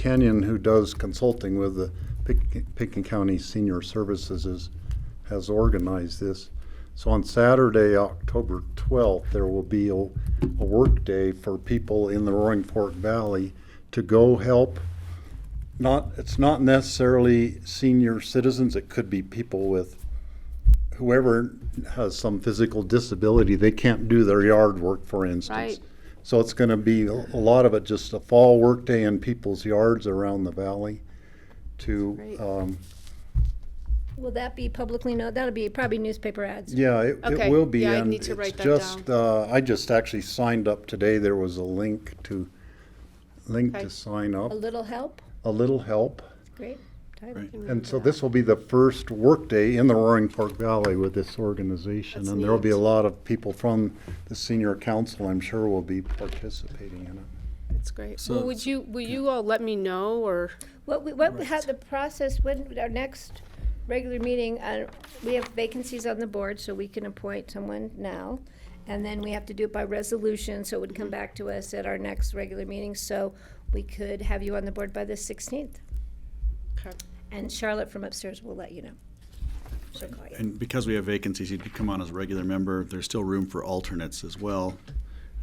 Kenyon, who does consulting with the Pick- Pickens County Senior Services, is, has organized this. So on Saturday, October 12th, there will be a, a work day for people in the Roaring Fork Valley to go help. Not, it's not necessarily senior citizens, it could be people with whoever has some physical disability, they can't do their yard work, for instance. Right. So it's gonna be, a lot of it just a fall workday in people's yards around the valley to, Great. um, Will that be publicly known? That'll be probably newspaper ads. yeah, it, it Okay, will be. yeah, I and need to it's write that just, Uh, I just actually signed up today, there was a link to, link Okay. to sign up, A little help, a little help. great. Tyler. And so this will be the first workday in the Roaring Fork Valley with this organization. That's And there'll be a neat. lot of people from the senior council, I'm sure, will be participating in it. That's great. So- Well, would you, will you all let me know or, What, we- what, we- how the process, when, our next regular meeting, uh, we have vacancies on the board, so we can appoint someone now. And then we have to do it by resolution, so it would Mm-hmm. come back to us at our next regular meeting, so we could have you on the board by the sixteenth. Okay. And Charlotte from upstairs will let you know. She'll call you. And because we have vacancies, you could come on as a regular member. There's still room for alternates as well.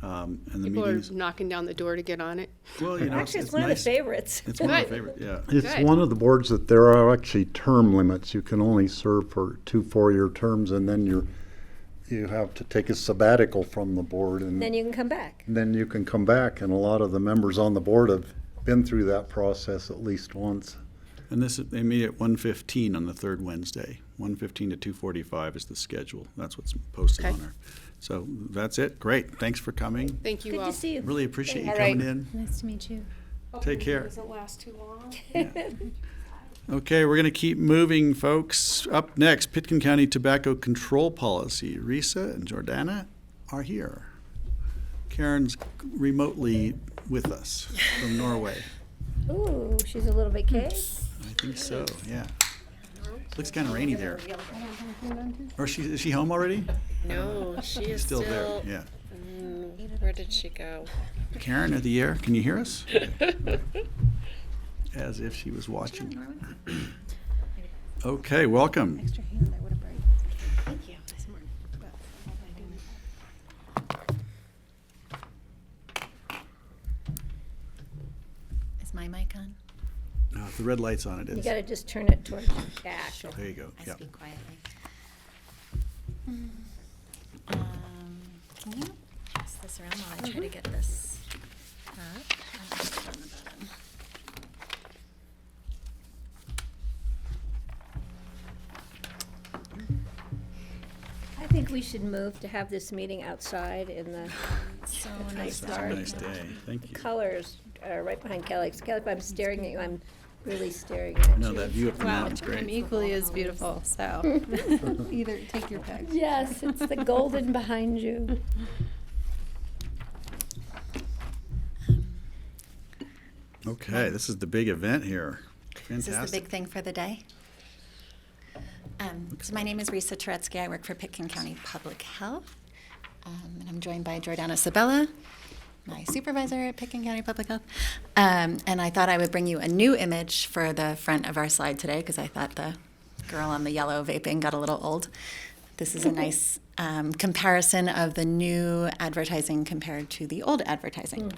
Um, And the people are meetings, knocking down the door to get on it? well, you know, it's Actually, it's it's one of the nice. favorites. It's one of the Right. favorite, yeah. It's Good. one of the boards that there are actually term limits. You can only serve for two four-year terms and then you're, you have to take a sabbatical from the board Then and you can come back. then you can come back. And a lot of the members on the board have been through that process at least once. And this, is- they meet at 1:15 on the third Wednesday. 1:15 to 2:45 is the schedule. That's what's posted Okay. on our. So that's it. Great. Thanks for coming. Thank you Good all. to see you. Really appreciate you All right. coming in. Nice to meet you. Take care. Doesn't last too long. Okay, we're going to keep moving, folks. Up next, Pitkin County Tobacco Control Policy. Risa and Jordana are here. Karen's remotely with us from Norway. Ooh, she's a little bit caged. I think so, yeah. Looks kind of rainy there. Or she, is she home already? No, she is Still still. Mm, there, yeah. Where did she go? Karen of the air, can you hear us? As if she was watching. Okay, welcome. Extra hand, that would have brightened. Thank you. Is my mic on? Uh, The red light's on, it You is. gotta just turn it towards your back. There you go, I yeah. speak quietly. Mm. Um, Can you pass this around while I try to get this up? And I'll put it on the bottom. I think we should move to have this meeting outside in the So That's nice. nice to It's a Sorry. nice day, thank you. colors, uh, right behind Kelly. 'Cause Kelly, if I'm staring at you, I'm really staring at No, you. that view up the mountain's I'm great. equally as beautiful, so either take your pick. Yes, it's the golden behind you. Okay, this is the big event here. Is this the Fantastic. big thing for the day? Um, So my name is Risa Turetsky. I work for Pitkin County Public Health. Um, And I'm joined by Jordana Sabella, my supervisor at Pitkin County Public Health. Um, And I thought I would bring you a new image for the front of our slide today because I thought the girl on the yellow vaping got a little old. This is a nice um, comparison of the new advertising compared to the old advertising.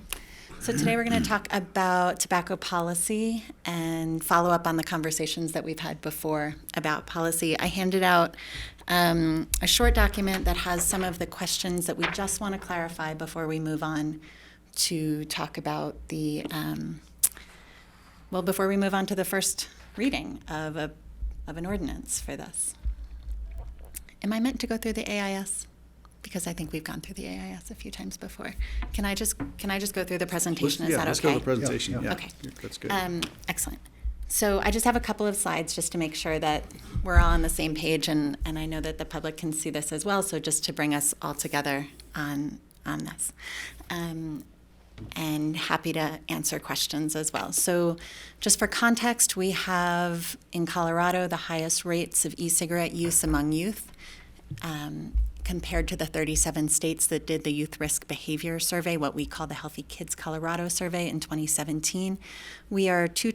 So today we're going to talk about tobacco policy and follow up on the conversations that we've had before about policy. I handed out um, a short document that has some of the questions that we just want to clarify before we move on to talk about the, um, well, before we move on to the first reading of a, of an ordinance for this. Am I meant to go through the AIS? Because I think we've gone through the AIS a few times before. Can I just, can I just go through the Let's- presentation? Is Yeah, that let's go to okay? the presentation, yeah. Okay. That's good. Um, excellent. So I just have a couple of slides just to make sure that we're all on the same page, and, and I know that the public can see this as well, so just to bring us all together on, on this. Um, and happy to answer questions as well. So, just for context, we have in Colorado the highest rates of e cigarette use among youth. Um, compared to the 37 states that did the Youth Risk Behavior Survey, what we call the Healthy Kids Colorado Survey in 2017, we are two